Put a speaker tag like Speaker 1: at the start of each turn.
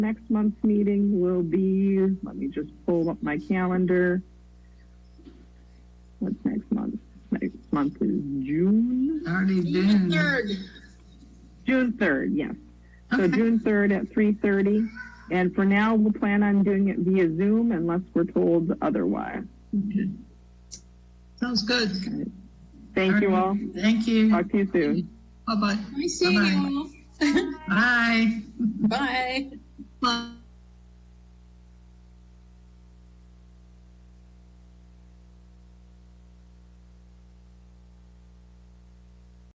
Speaker 1: Next month's meeting will be, let me just pull up my calendar. What's next month? Next month is June,
Speaker 2: Already
Speaker 3: June
Speaker 2: been.
Speaker 3: third.
Speaker 1: June 3rd, yes. So
Speaker 2: Okay.
Speaker 1: June 3rd at 3:30. And for now, we'll plan on doing it via Zoom unless we're told otherwise.
Speaker 2: Sounds good.
Speaker 1: Thank you all.
Speaker 2: Thank you.
Speaker 1: Talk to you soon.
Speaker 2: Bye-bye.
Speaker 3: Nice seeing you all.
Speaker 2: Bye.
Speaker 3: Bye.
Speaker 2: Bye.